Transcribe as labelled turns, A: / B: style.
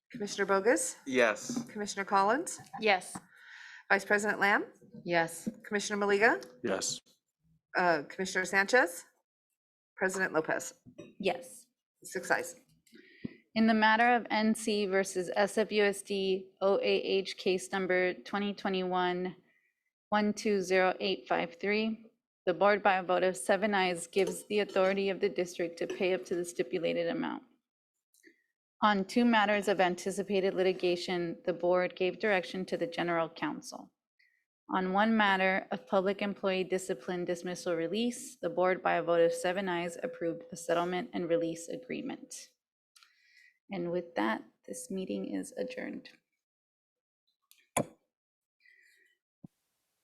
A: Commissioner Bogus,
B: Yes.
A: Commissioner Collins,
C: Yes.
A: Vice President Lamb,
C: Yes.
A: Commissioner Maliga,
B: Yes.
A: uh, Commissioner Sanchez, President Lopez.
C: Yes.
A: Six eyes.
C: In the matter of NC versus SFUSD OAH case number 2021-120853, the board by a vote of seven ayes gives the authority of the district to pay up to the stipulated amount. On two matters of anticipated litigation, the board gave direction to the general counsel. On one matter of public employee discipline dismissal release, the board by a vote of seven ayes approved the settlement and release agreement. And with that, this meeting is adjourned.